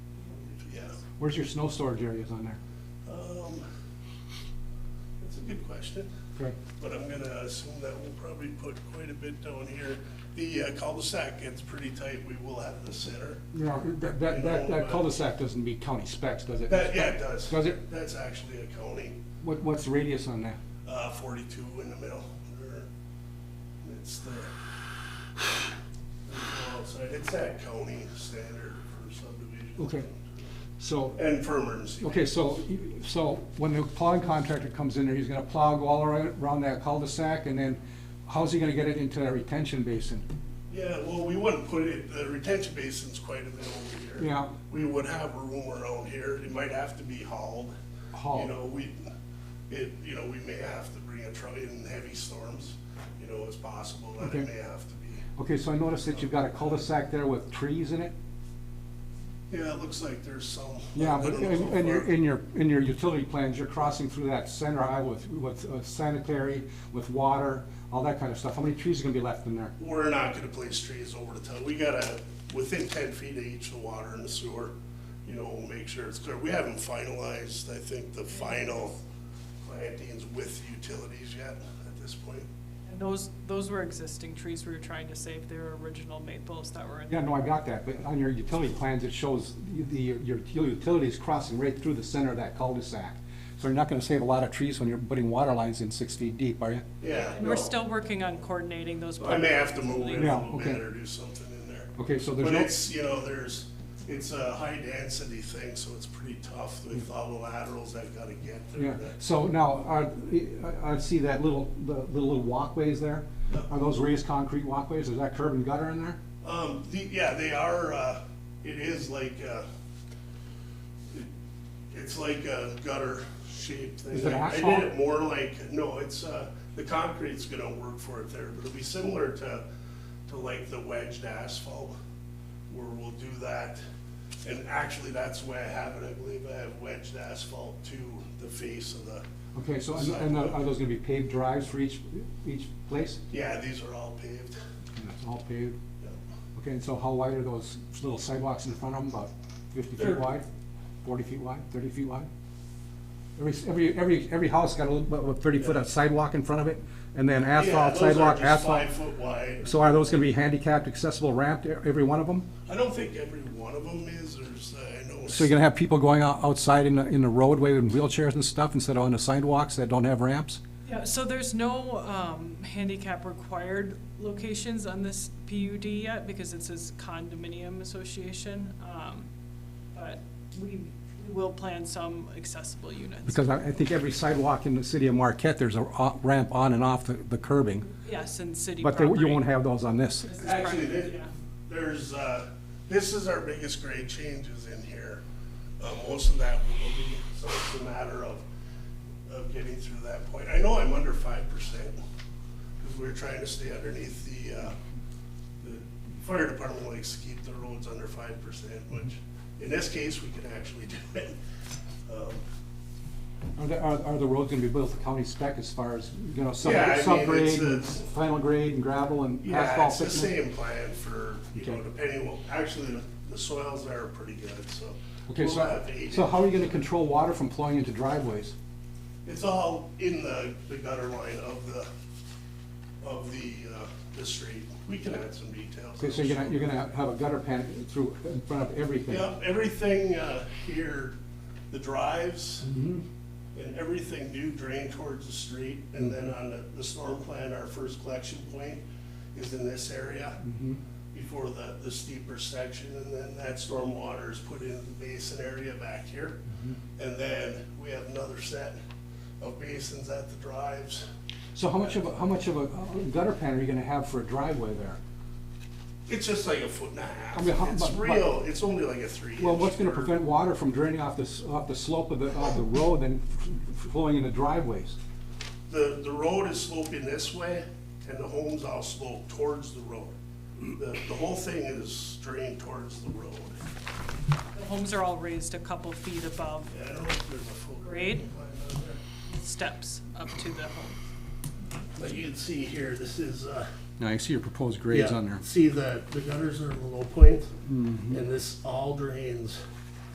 Where's your snow storage areas on there? Um, That's a good question, Okay. but I'm gonna assume that we'll probably put quite a bit down here. The uh, cul-de-sac gets pretty tight, we will have the center. No, that, that, that- that cul-de-sac doesn't meet county specs, does it? That, yeah, it does. Does it? That's actually a county, What, what's the radius on that? uh, forty-two in the middle, or, it's the, outside, it's that county standard for subdivision. Okay. So, And for emergency. okay, so, so when the plowing contractor comes in there, he's gonna plow all around, around that cul-de-sac, and then how's he gonna get it into that retention basin? Yeah, well, we wouldn't put it, the retention basin's quite a bit over here. Yeah. We would have room around here, it might have to be hauled. Hauled. You know, we, it, you know, we may have to bring a truck in heavy storms, you know, it's possible that it Okay. may have to be. Okay, so I noticed that you've got a cul-de-sac there with trees in it? Yeah, it looks like there's some. Yeah, I but don't know in, how in your, far. in your, in your utility plans, you're crossing through that center aisle with, with uh, sanitary, with water, all that kind of stuff. How many trees are gonna be left in there? We're not gonna place trees over the top, we gotta, within ten feet of each, the water and the sewer, you know, we'll make sure it's clear. We haven't finalized, I think, the final plantings with utilities yet at this point. And those, those were existing trees we were trying to save, they were original maples that were in. Yeah, no, I got that, but on your utility plans, it shows the, your utilities crossing right through the center of that cul-de-sac. So you're not gonna save a lot of trees when you're putting water lines in six feet deep, are you? Yeah. We're no. still working on coordinating those. I may have to move it Yeah, a little okay. bit or do something in there. Okay, so there's But no. it's, you know, there's, it's a high density thing, so it's pretty tough with all the laterals I've gotta get Yeah, there. That- so now, are, I I see that little, the little little walkways there. Are those raised concrete walkways? Is that curb and gutter in there? Um, the, yeah, they are, uh, it is like, uh, it- it's like a gutter shaped thing. Is it I- I asphalt? did it more like, no, it's, uh, the concrete's gonna work for it there, but it'll be similar to, to like the wedged asphalt, where we'll do that. And actually, that's the way I have it, I believe I have wedged asphalt to the face of the, Okay, so, and- and are those gonna be paved drives for each, each place? yeah, these are all paved. And it's all paved. Yeah. Okay, and so how wide are those little sidewalks in front of them? About fifty feet They're- wide? Forty feet wide? Thirty feet wide? Every, every, every, every house got a little, about thirty foot of sidewalk in front of it, and then Yeah, asphalt, those are sidewalk, just asphalt. Five foot wide. So are those gonna be handicapped accessible ramped, e- every one of them? I don't think every one of them is, there's, uh, I know. So you're gonna have people going out, outside in the, in the roadway in wheelchairs and stuff instead of on the sidewalks that don't have ramps? Yeah, so there's no, um, handicap required locations on this PUD yet, because it says condominium association. Um, but we will plan some accessible units. Because I, I think every sidewalk in the city of Marquette, there's a o- ramp on and off the, the curbing. Yes, in city But they- property. you won't have those on this. This is Actually, property, thi- yeah. there's, uh, this is our biggest grade changes in here. Uh, Most of that will be, so it's a matter of, of getting through that point. I know I'm under five percent, because we're trying to stay underneath the, uh, the fire department likes to keep the roads under five percent, which in this case, we can actually do it. Um, Are the, are, are the roads gonna be built to county spec as far as, you know, sub, Yeah, I mean, subgrade, it's a- and final grade and gravel and Yeah, asphalt it's the thickness? same plan for, you know, Okay. depending, well, actually, the- the soils there are pretty good, so. Okay, we'll so, have to eat so it. how are you gonna control water from flowing into driveways? It's all in the, the gutter line of the, of the, uh, the street. We can add some details. Okay, so you're gonna, you're gonna have a gutter pan through, in front of everything? Yeah, everything, uh, here, the drives Mm-hmm. and everything do drain towards the street. And then on the, the storm plan, our first collection point is in this area Mm-hmm. before the, the steeper section. And then that storm water is put into the basin area back here. Mm-hmm. And then we have another set of basins at the drives. So how much of, a how much of a uh, gutter pan are you gonna have for a driveway there? It's just like a foot and a half. I mean, how- It's but- but- real, it's only like a three inch. Well, what's gonna curve. prevent water from draining off the, s- off the slope of the, of the road and f- flowing into driveways? The, the road is sloping this way, and the homes all slope towards the road. The, the whole thing is drained towards the road. The homes are all raised a couple feet above Yeah, I don't know if there's a full. Grade? line on there. steps up to the home. But you can see here, this is, uh. Now, I see your proposed yeah, See, the, the gutters are the low point, and this all drains